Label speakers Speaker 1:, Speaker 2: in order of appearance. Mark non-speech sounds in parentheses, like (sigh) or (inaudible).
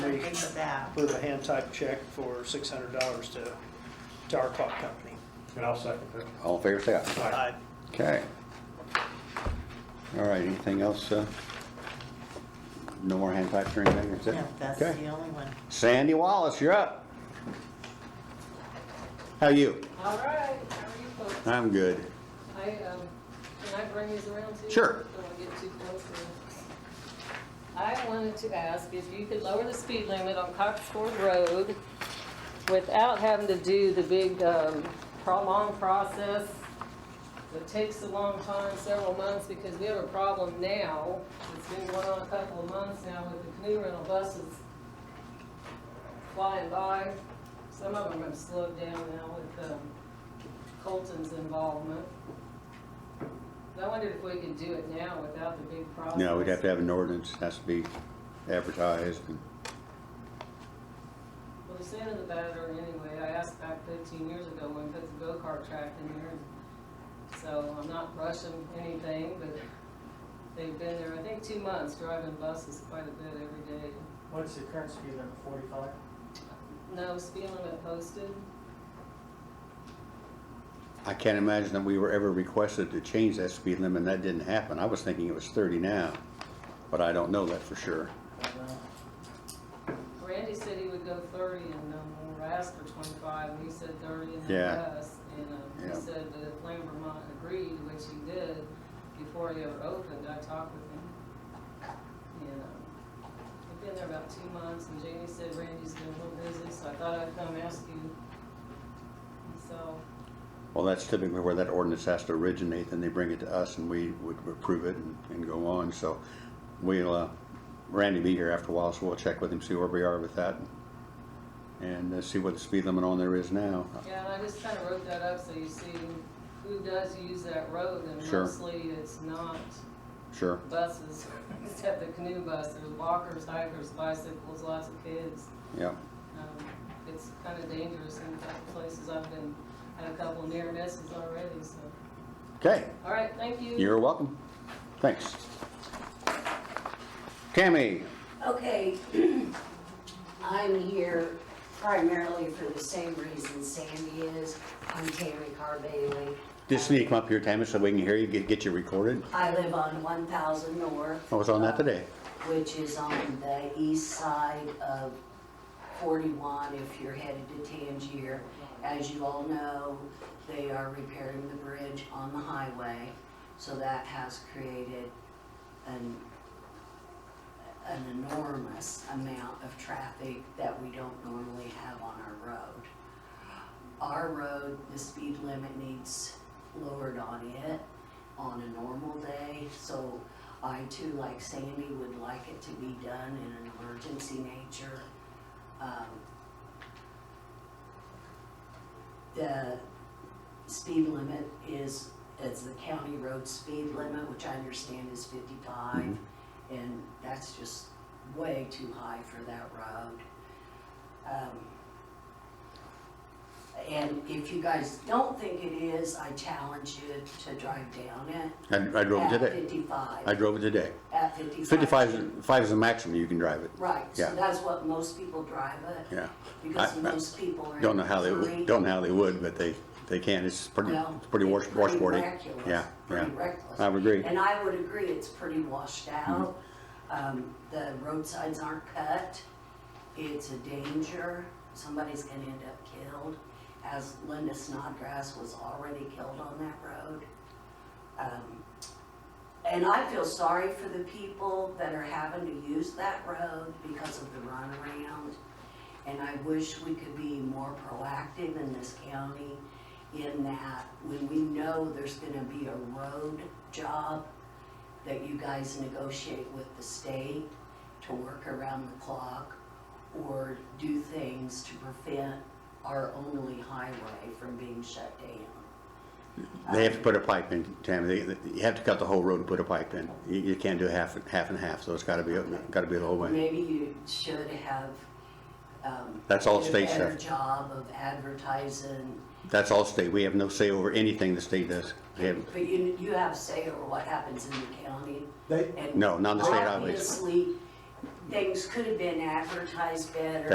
Speaker 1: with that.
Speaker 2: with a hand type check for six hundred dollars to, to our clock company.
Speaker 3: And I'll second that.
Speaker 4: All in favor, say aye.
Speaker 2: I,
Speaker 4: Okay. All right, anything else? uh, No more hand types or anything, that's it?
Speaker 1: No, that's
Speaker 4: Okay.
Speaker 1: the only one.
Speaker 4: Sandy Wallace, you're up. How you?
Speaker 5: All right, how are you folks?
Speaker 4: I'm good.
Speaker 5: I, um, can I bring these around to you?
Speaker 4: Sure.
Speaker 5: Don't wanna get too close. and- I wanted to ask if you could lower the speed limit on Coxford Road without having to do the big, um, prolonged process that takes a long time, several months, because we have a problem now. It's been going on a couple of months now with the canoe rental buses flying by. Some of them have slowed down now with, um, Colton's involvement. I wondered if we could do it now without the big process.
Speaker 4: No, we'd have to have an ordinance, has to be advertised. and-
Speaker 5: Well, the sand in the batter anyway, I asked back fifteen years ago when we put the go-kart track in there. So I'm not rushing anything, but they've been there, I think, two months, driving buses quite a bit every day.
Speaker 6: What's the current speed limit, forty-five?
Speaker 5: No speed limit posted?
Speaker 4: I can't imagine that we were ever requested to change that speed limit, and that didn't happen. I was thinking it was 30 now, but I don't know that for sure.
Speaker 5: Randy said he would go thirty and no more, I asked for twenty-five, and he said thirty and then
Speaker 4: Yeah.
Speaker 5: less. And, um,
Speaker 4: Yeah.
Speaker 5: he said that if Lambermont agreed, which he did, before he ever opened, I talked with him. And, um, I've been there about two months, and Jamie said Randy's been a little busy, so I thought I'd come ask you. And So,
Speaker 4: Well, that's typically where that ordinance has to originate, then they bring it to us and we would approve it and, and go on, so we'll, uh, Randy be here after a while, so we'll check with him, see where we are with that. And uh, see what the speed limit on there is now.
Speaker 5: yeah, and I just kinda wrote that up so you see who does use that road, and
Speaker 4: Sure.
Speaker 5: mostly it's not
Speaker 4: Sure,
Speaker 5: buses, (laughs) except the canoe bus, there's walkers, hikers, bicycles, lots of kids.
Speaker 4: yeah,
Speaker 5: Um, It's kind of dangerous in a couple places, I've been, had a couple near misses already, so,
Speaker 4: okay,
Speaker 5: all right, thank you.
Speaker 4: you're welcome, thanks. Tammy,
Speaker 7: Okay, (clears throat) I'm here primarily for the same reason Sandy is. I'm Tammy Carbailey.
Speaker 4: just need to come up here, Tammy, so we can hear you, get, get you recorded.
Speaker 7: I live on 1,000 North.
Speaker 4: I was on that today,
Speaker 7: Which is on the east side of 41 if you're headed to Tangier. As you all know, they are repairing the bridge on the highway, so that has created an, an enormous amount of traffic that we don't normally have on our road. Our road, the speed limit needs lowered on it on a normal day, so I too, like Sandy, would like it to be done in an emergency nature. Um, The speed limit is, is the county road speed limit, which I understand is fifty-five,
Speaker 4: Mhm.
Speaker 7: and that's just way too high for that road. Um, And if you guys don't think it is, I challenge you to drive down it.
Speaker 4: I, I drove it
Speaker 7: At
Speaker 4: today, I
Speaker 7: fifty-five,
Speaker 4: drove it today.
Speaker 7: at fifty-five.
Speaker 4: Fifty-five, is- five is the maximum you can drive it,
Speaker 7: Right,
Speaker 4: Yeah.
Speaker 7: so that's what most people drive it,
Speaker 4: yeah.
Speaker 7: because
Speaker 4: I- I
Speaker 7: most people are. in
Speaker 4: Don't know how they,
Speaker 7: a
Speaker 4: would-
Speaker 7: hurry.
Speaker 4: don't know how they would, but they, they can, it's pretty,
Speaker 7: Well,
Speaker 4: it's pretty wash-
Speaker 7: it's pretty
Speaker 4: washboardy.
Speaker 7: reckless,
Speaker 4: Yeah, yeah,
Speaker 7: Pretty reckless.
Speaker 4: I would agree,
Speaker 7: And I would agree, it's pretty washed out.
Speaker 4: Mm-hmm.
Speaker 7: Um, the roadsides aren't cut. It's a danger. Somebody's gonna end up killed, as Linda Snodgrass was already killed on that road. Um, and I feel sorry for the people that are having to use that road because of the runaround. And I wish we could be more proactive in this county in that when we know there's gonna be a road job, that you guys negotiate with the state to work around the clock or do things to prevent our only highway from being shut down.
Speaker 4: they have to put a pipe in, Tammy, They- they, you have to cut the whole road and put a pipe in, you, you can't do half, half and half, so it's gotta be, gotta be the whole way.
Speaker 7: Maybe you should have, um.
Speaker 4: That's all
Speaker 7: did
Speaker 4: state
Speaker 7: A better
Speaker 4: stuff.
Speaker 7: job of advertising,
Speaker 4: That's all state, we have no say over anything the state does, we have,
Speaker 7: but you, you have say over what happens in the county.
Speaker 3: They,
Speaker 7: And
Speaker 4: No, not on the state highways.
Speaker 7: Obviously, things could have been advertised better.